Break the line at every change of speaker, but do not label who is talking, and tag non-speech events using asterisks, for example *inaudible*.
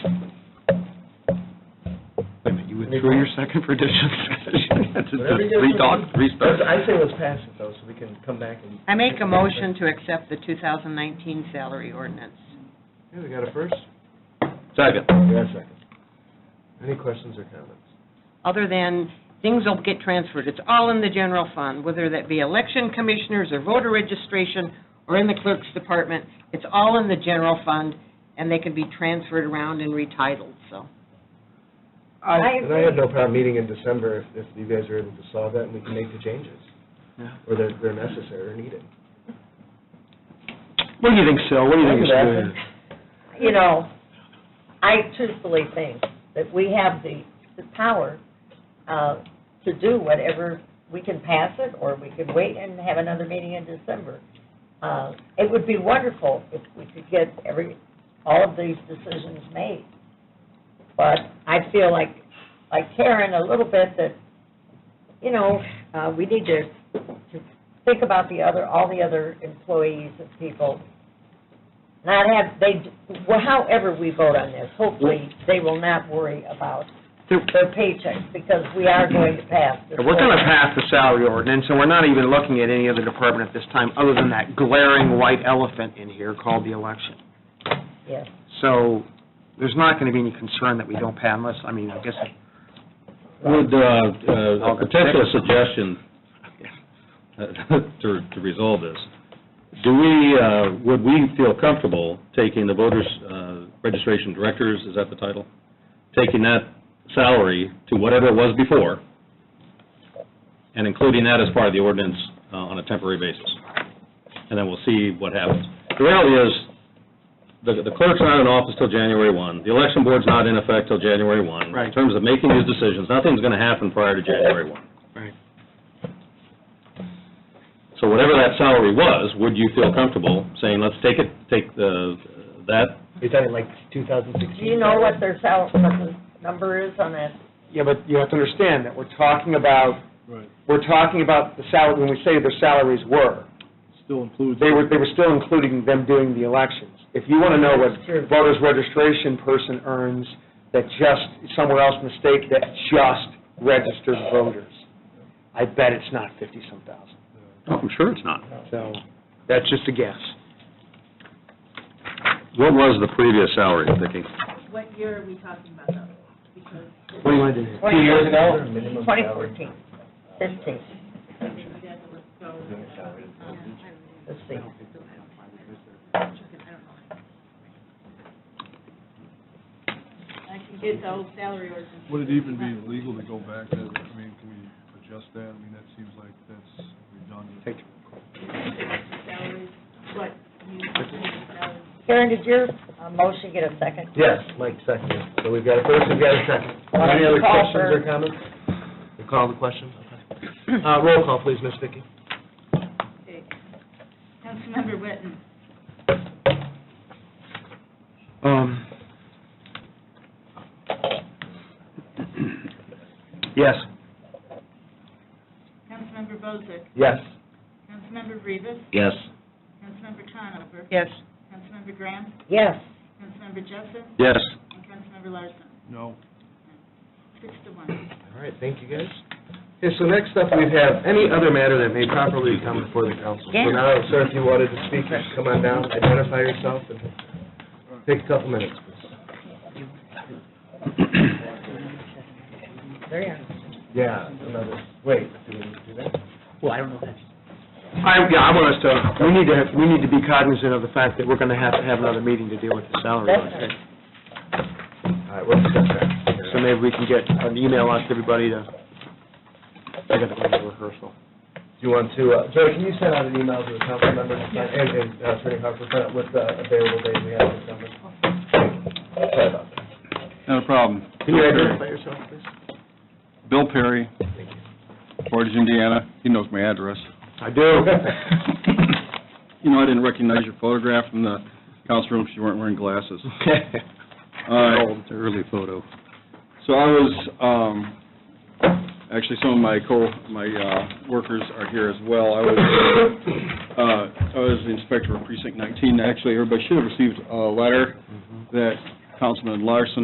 Drew, your second for
*laughs*
discussion. That's just
Whatever you guys
Three dogs, three
Let's-
stars.
I say let's pass it though, so we can come back and.
I make a motion to accept the 2019 salary ordinance.
Okay, we got a first?
Second.
We got a second. Any questions or comments?
Other than, things will get transferred, it's all in the general fund, whether that be election commissioners or voter registration or in the clerk's department, it's all in the general fund, and they can be transferred around and retitled, so.
I. And I have no problem meeting in December if, if you guys are able to solve that and we can make the changes,
Yeah.
or they're, they're necessary or needed.
What do you think, Sal? What do you think?
Thank you,
is good?
you know, I truthfully think that we have the, the power uh, to do whatever, we can pass it, or we can wait and have another meeting in December. Uh, It would be wonderful if we could get every, all of these decisions made. But I feel like, like Karen, a little bit that, you know, uh, we need to, to think about the other, all the other employees and people not have, they, well, however we vote on this, hopefully, they will not worry about their paychecks, because we are going to pass this.
We're going to pass the salary ordinance, and we're not even looking at any other department at this time, other than that glaring white elephant in here called the election.
Yes.
So there's not going to be any concern that we don't pass unless, I mean, I guess,
Would, uh, uh, a potential suggestion uh, *laughs* to, to resolve this, do we, uh, would we feel comfortable taking the voters, uh, registration directors, is that the title? Taking that salary to whatever it was before, and including that as part of the ordinance uh, on a temporary basis? And then we'll see what happens. The reality is, the the clerk's not in office till January 1, the election board's not in effect till January 1.
Right.
In terms of making these decisions, nothing's going to happen prior to January 1.
Right.
So whatever that salary was, would you feel comfortable saying, let's take it, take the, that,
You're talking like 2016?
Do you know what their sal, what the number is on that?
yeah, but you have to understand that we're talking about, we're talking about the salary, when we say their salaries were,
Still includes.
they were, they were still including them doing the elections. If you want to know what voters registration person earns that just, somewhere else mistake, that just registered voters, I bet it's not fifty-some thousand.
oh, I'm sure it's not.
So, that's just a guess.
What was the previous salary, Vicki?
What year are we talking about though? Because
What do you want to do?
Two years ago?
Twenty fourteen, fifteen,
it doesn't look so.
let's see.
I can get the old salary ordinance.
Would it even be legal to go back to, I mean, can we adjust that? I mean, that seems like that's redundant.
Salaries, what, you mean, salaries.
Karen, did your uh, motion get a second?
Yes, Mike seconded. So we've got a first, we've got a second.
Why don't
Any
you
other
call
questions
for-
or comments? You call the question? Okay. Uh, roll call, please, Miss Vicki.
Okay. Councilmember Witten,
Um. Yes.
Councilmember Bozick,
Yes.
Councilmember Rivas,
Yes.
Councilmember Conover,
Yes.
Councilmember Graham,
Yes,
Councilmember Jessup,
Yes.
and Councilmember Larson,
No,
six to one.
All right, thank you, guys. Okay, so next up, we have any other matter that may properly come before the council. So
Yeah.
now, sir, if you wanted to speak, come on down, identify yourself, and take a couple minutes, please.
there you are.
Yeah, another, wait, do we need to do that?
Well, I don't know that. I, yeah, I want us to, we need to, we need to be cognizant of the fact that we're going to have to have another meeting to deal with the salary.
Definitely.
All right, we'll discuss that.
So maybe we can get an email out to everybody to, I got to go to rehearsal.
Do you want to, uh, Joey, can you send out an email to the council members and, and uh, Attorney Harper, find out what the available days we have in December? Sorry about that.
not a problem.
Can you identify yourself, please?
Bill Perry,
Thank you.
Portage, Indiana. He knows my address.
I do.
*laughs*
You know, I didn't recognize your photograph from the council room because you weren't wearing glasses. Uh,
It's an early photo.
So I was, um, actually, some of my co, my uh, workers are here as well. I was, uh, I was the
Mm-hmm.
inspector of precinct 19. Actually, everybody should have received a letter that Councilman Larson